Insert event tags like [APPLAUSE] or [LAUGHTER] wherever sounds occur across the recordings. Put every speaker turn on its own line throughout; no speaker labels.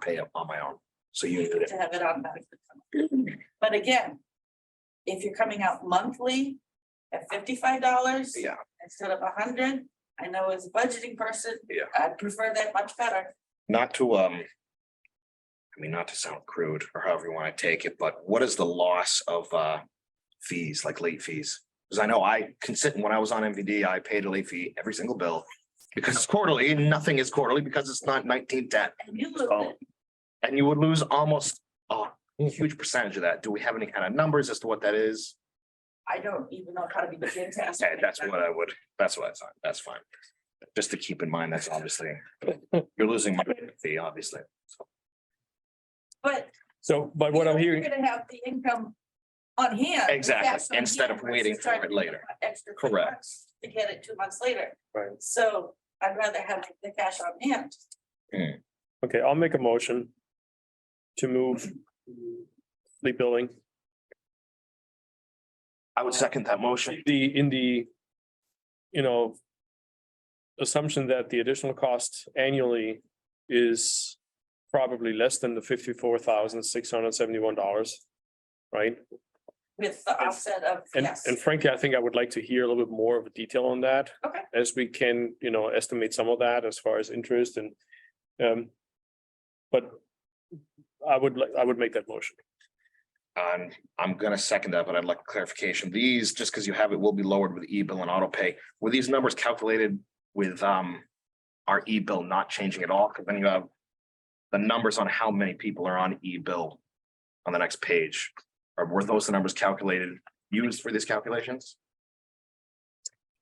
pay up on my own. So you did it.
to have it automatically. But again, if you're coming out monthly at fifty-five dollars.
Yeah.
Instead of a hundred, I know as a budgeting person.
Yeah.
I'd prefer that much better.
Not to, um. I mean, not to sound crude or however you want to take it, but what is the loss of, uh, fees, like late fees? Because I know I can sit, and when I was on MVD, I paid a late fee every single bill. Because it's quarterly, and nothing is quarterly because it's not nineteen ten.
And you look,
Oh. And you would lose almost a huge percentage of that. Do we have any kind of numbers as to what that is?
I don't even know how to begin to
[LAUGHS]
ask.
Okay, that's what I would, that's what I thought, that's fine. Just to keep in mind, that's obviously, you're losing my fee, obviously.
But.
So, but what I'm hearing,
You're gonna have the income on hand.
Exactly,
cash on
instead
hand
of waiting
versus trying
for it
to pick
later.
up Extra. three
Correct.
months To get it two months later.
Right.
So I'd rather have the cash on hand.
okay, I'll make a motion to move the billing,
I would second that motion.
the, in the, you know, assumption that the additional cost annually is probably less than the fifty-four thousand, six hundred and seventy-one dollars, right?
With the
And-
offset of,
And,
yes.
and frankly, I think I would like to hear a little bit more of a detail on that.
Okay.
As we can, you know, estimate some of that as far as interest and, um, but I would, like I would make that motion.
Um, I'm gonna second that, but I'd like clarification. These, just because you have it, will be lowered with e-bill and auto pay. Were these numbers calculated with um our e-bill not changing at all? Because then you have the numbers on how many people are on e-bill on the next page. Or were those the numbers calculated, used for these calculations?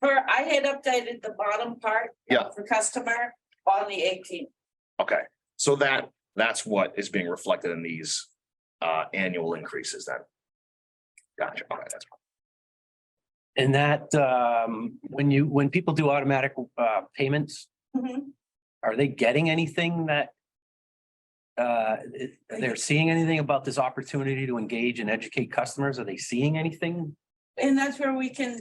For, I had updated the bottom part.
Yeah.
For customer on the eighteenth.
Okay, so that, that's what is being reflected in these uh annual increases then. Gotcha, okay, that's.
And that, um, when you, when people do automatic, uh, payments, are they getting anything that? Uh, it- they're seeing anything about this opportunity to engage and educate customers? Are they seeing anything?
And that's where we can,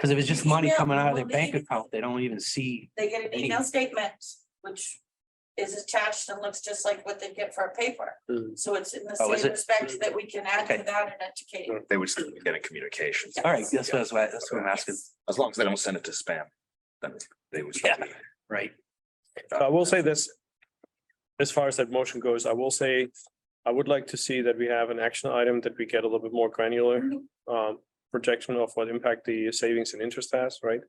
Cause if it's just money
Yeah,
coming out of their
well,
bank
they-
account, they don't even see.
they get an email statement, which is attached and looks just like what they get for a paper.
Mm.
So it's in the
Oh, is
same
it?
respect that we can add to
Okay.
that and educate.
They would still be getting communications.
All right, that's what, that's what I- that's what I'm asking,
As long as they don't send it to spam, then they would. still be-
right?
I will say this. As far as that motion goes, I will say, I would like to see that we have an action item that we get a little bit more granular
Mhm.
um projection of what impact the savings and interest has, right?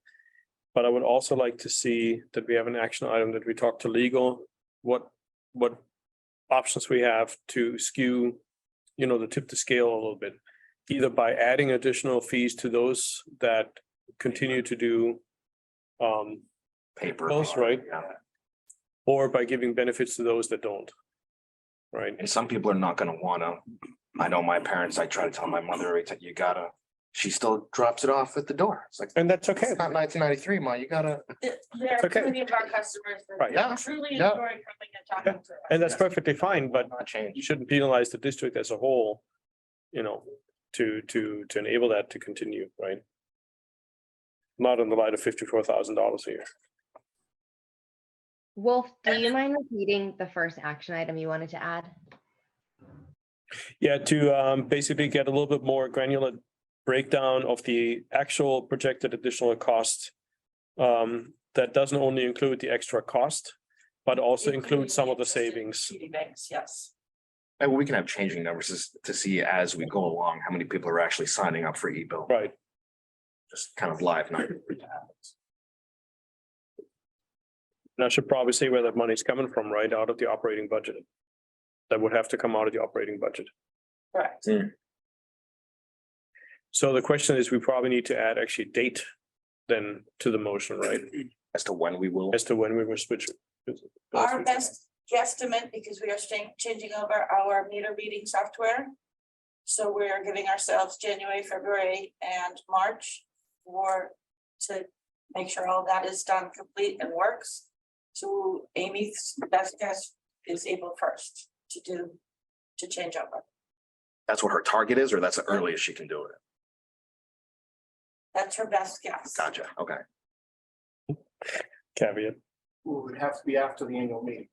But I would also like to see that we have an action item that we talk to legal, what what options we have to skew, you know, the tip to scale a little bit. Either by adding additional fees to those that continue to do um
Paper.
That's right.
Yeah.
or by giving benefits to those that don't. Right,
And some people are not gonna wanna, I know my parents, I try to tell my mother, every time, you gotta, she still drops it off at the door. It's like,
and that's okay.
it's not nineteen ninety-three, ma, you gotta.
Th- There are
Okay.
plenty of our customers
Right.
Yeah.
that truly
Yeah.
enjoy coming and talking to us.
And that's perfectly fine, but
Not change.
you shouldn't penalize the district as a whole. You know, to, to, to enable that to continue, right? Not in the light of fifty-four thousand dollars a year.
Wolf, do you mind repeating the first action item you wanted to add?
Yeah, to um basically get a little bit more granular breakdown of the actual projected additional cost. Um, that doesn't only include the extra cost, but also includes some of the savings.
City banks, yes.
And we can have changing numbers is- to see as we go along, how many people are actually signing up for e-bill,
Right,
just kind of live now.
And I should probably say where that money's coming from, right? Out of the operating budget. That would have to come out of the operating budget.
Correct.
So the question is, we probably need to add actually date then to the motion, right?
As to when we will.
As to when we were switching.
Our best guesstimate, because we are staying, changing over our meter reading software. So we're giving ourselves January, February and March for, to make sure all that is done complete and works. So Amy's best guess is April first to do, to change over.
That's what her target is, or that's the earliest she can do it.
That's her best guess.
Gotcha, okay.
Caveat.
Well, it would have to be after the annual meeting.